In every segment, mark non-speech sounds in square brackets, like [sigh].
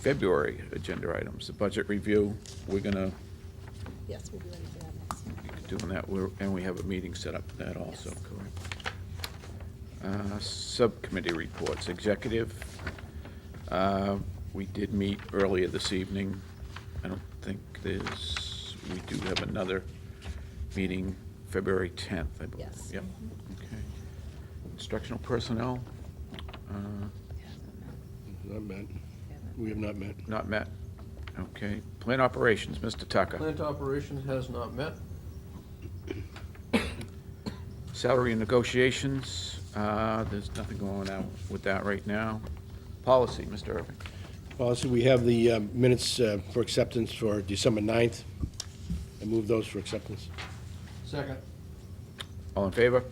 February agenda items, the budget review, we're gonna Yes, we'll be ready for that next. be doing that, we're- and we have a meeting set up for that also, correct? Uh, Subcommittee reports, executive, uh, we did meet earlier this evening. I don't think there's, we do have another meeting February 10th, I believe. Yes. Yep, okay. Instructional personnel, uh, Not met. We have not met. Not met. Okay. Plant operations, Mr. Tucker. Plant operations has not met. Salary and negotiations, uh, there's nothing going on with that right now. Policy, Mr. Irving. Policy, we have the um, minutes uh, for acceptance for December 9th. I move those for acceptance. Second. All in favor?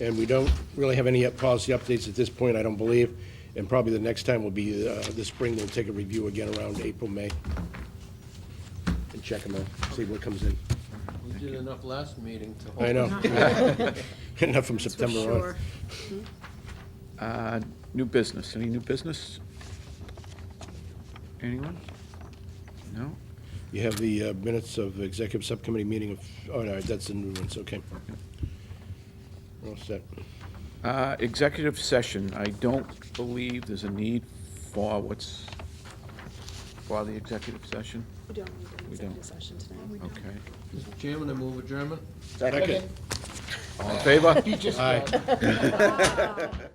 And we don't really have any uh, policy updates at this point, I don't believe, and probably the next time will be uh, this spring, we'll take a review again around April, May, and check them out, see what comes in. We did enough last meeting to hold. I [laughs] know. Enough from September on. Uh, New business, any new business? Anyone? No? You have the uh, minutes of executive subcommittee meeting of, oh, no, that's the new ones, okay. We're all set. Uh, Executive session, I don't believe there's a need for what's, for the executive session? We don't need an We don't. executive session tonight. Okay. Mr. Chairman, I move adjournment. Second. All in favor? Aye.